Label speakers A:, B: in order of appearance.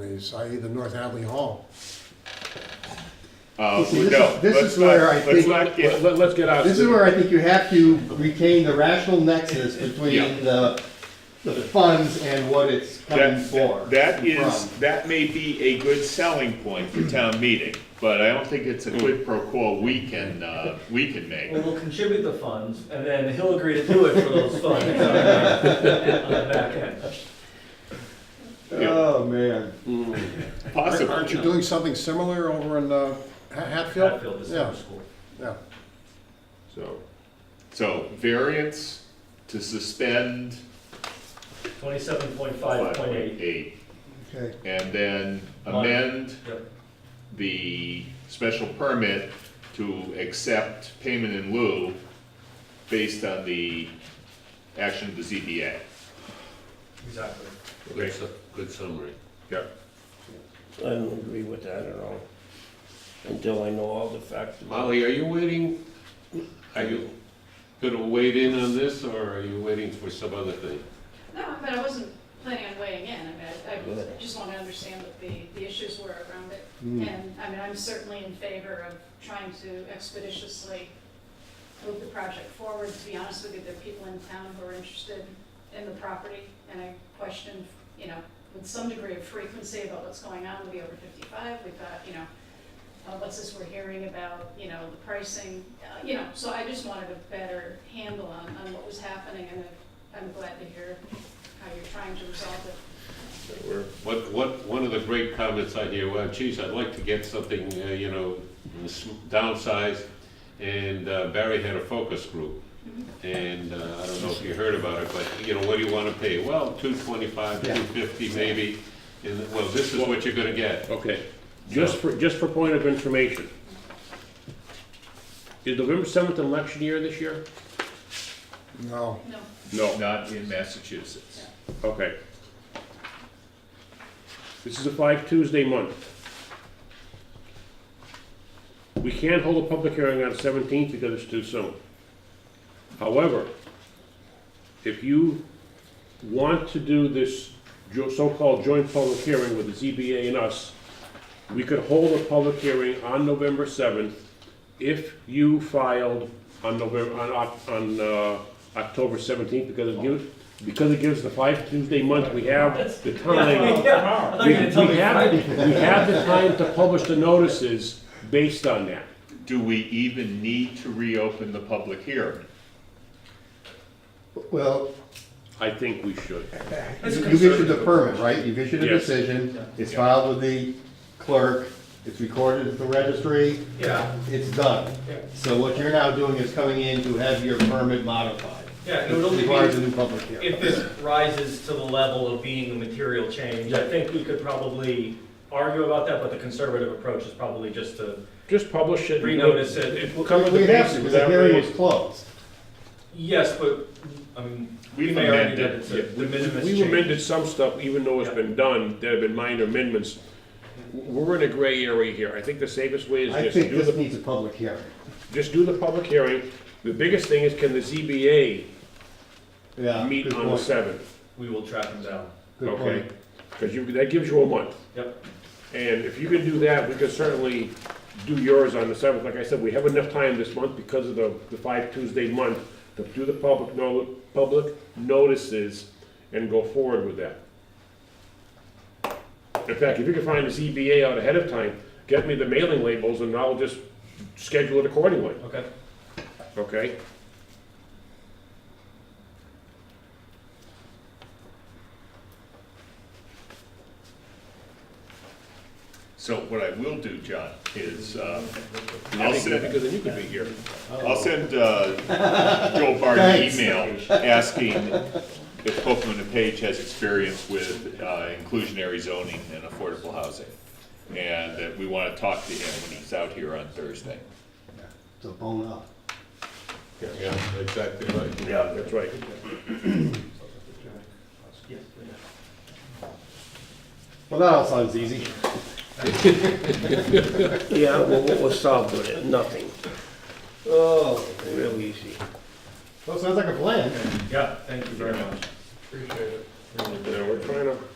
A: is, i.e. the North Hadley Hall.
B: Uh,
C: This is-
B: no,
C: this
B: let's
C: is where I
B: not, let's
C: think-
B: not get,
D: Let, us get out.
C: This is where I think you have to retain the rational nexus
B: Yeah.
C: between the, the funds and what it's coming
B: that,
C: for.
B: that- that is,
C: from.
B: that may be a good selling point for town meeting, but I don't think it's a quid pro quo we can, uh, we can make.
E: Well, we'll contribute the funds, and then he'll agree to do it for those funds on the on the back end.
B: Yeah.
C: Oh, man.
A: Aren't-
B: Possible,
A: Aren't you doing something similar over in uh, Ha- Hatfield?
E: Hatfield is summer school.
A: Yeah,
B: so, so variance to suspend
E: Twenty-seven point
B: five
E: five point eight.
B: eight,
A: okay.
B: and then
E: Mon-
B: amend the special permit to accept payment in lieu based on the action of the ZBA.
E: Exactly.
B: Good
F: good summary.
B: Yeah.
G: I don't agree with that at all, until I know all the facts. about
F: Molly, are you waiting, are you gonna wade in on this, or are you waiting for some other thing?
H: No, but I wasn't planning on weighing in, I mean, I, I just want to understand what the, the issues were around it. And, I mean, I'm certainly in favor of trying to expeditiously move the project forward. To be honest with you, there are people in town who are interested in the property, and I question, you know, with some degree of frequency about what's going on with the over fifty-five, we've got, you know, uh, what's this we're hearing about, you know, the pricing, uh, you know, so I just wanted a better handle on, on what was happening, and I'm glad to hear how you're trying to resolve it.
F: What, what, one of the great comments I hear, well, geez, I'd like to get something, uh, you know, s- downsized, and uh, Barry had a focus group, and uh, I don't know if you heard about it, but, you know, what do you wanna pay? Well, two twenty-five, two fifty maybe, and, well, this is what you're gonna get.
D: Okay, just for, just for point of information. Is November seventh election year this year?
A: No,
H: No,
D: No.
B: Not in Massachusetts.
D: Okay. This is a five Tuesday month. We can't hold a public hearing on seventeenth because it's too soon. However, if you want to do this jo- so-called joint public hearing with the ZBA and us, we could hold a public hearing on November seventh if you filed on November, on, Oc- on, uh, October seventeenth, because it gives, because it gives the five Tuesday month, we have the time.
E: Yeah, I
D: We
E: thought you were gonna tell
D: we
E: me
D: have,
E: Friday.
D: we have the time to publish the notices based on that.
B: Do we even need to reopen the public hearing?
C: Well,
D: I think we should.
C: you- you've issued a permit, right? You've issued a
D: Yes.
C: decision, it's
B: Yeah.
C: filed with the clerk, it's recorded at the registry,
E: Yeah,
C: it's done.
E: Yeah.
C: So what you're now doing is coming in to have your permit modified.
E: yeah, and it would
C: It
E: only
C: requires a
E: be,
C: new public hearing.
E: if this rises to the level of being a material change, I think we could probably argue about that, but the conservative approach is probably just to
D: Just publish it.
E: renotice it. If we'll come-
C: We have to, because the hearing was closed.
E: Yes, but, I mean, we
B: We've
E: may argue
B: amended,
E: that it's a de minimis
D: We amended
E: change.
D: some stuff, even though it's been done, there have been minor amendments. We're in a gray area here. I think the safest way
C: I
D: is just
C: think
D: do
C: this
D: the,
C: needs a public hearing.
D: just do the public hearing. The biggest thing is can the ZBA
C: Yeah.
D: meet
C: good
D: on the
C: point.
D: seventh?
E: We will track them down.
C: Good
D: okay?
C: point.
D: Because you, that gives you a month.
E: Yep,
D: And if you can do that, we can certainly do yours on the seventh. Like I said, we have enough time this month because of the, the five Tuesday month to do the public no, public notices and go forward with that. In fact, if you can find the ZBA out ahead of time, get me the mailing labels and I'll just schedule it accordingly,
E: okay.
D: okay?
B: So what I will do, John, is, uh,
D: I
B: I'll
D: think that'd be
B: send,
D: good, then you could be here.
B: I'll send, uh, Joe Bard an
C: Thanks.
B: email asking if Copeland and Page has experience with, uh, inclusionary zoning and affordable housing. And that we wanna talk to him when he's out here on Thursday.
C: So bone up.
F: Yeah, exactly right.
D: Yeah. That's right.
C: Well, that all sounds easy.
G: Yeah, well, what was solved with it? Nothing.
C: Oh.
G: Real easy.
C: Well, sounds like a plan.
E: Yeah, thank you very much.
D: You know, we're trying to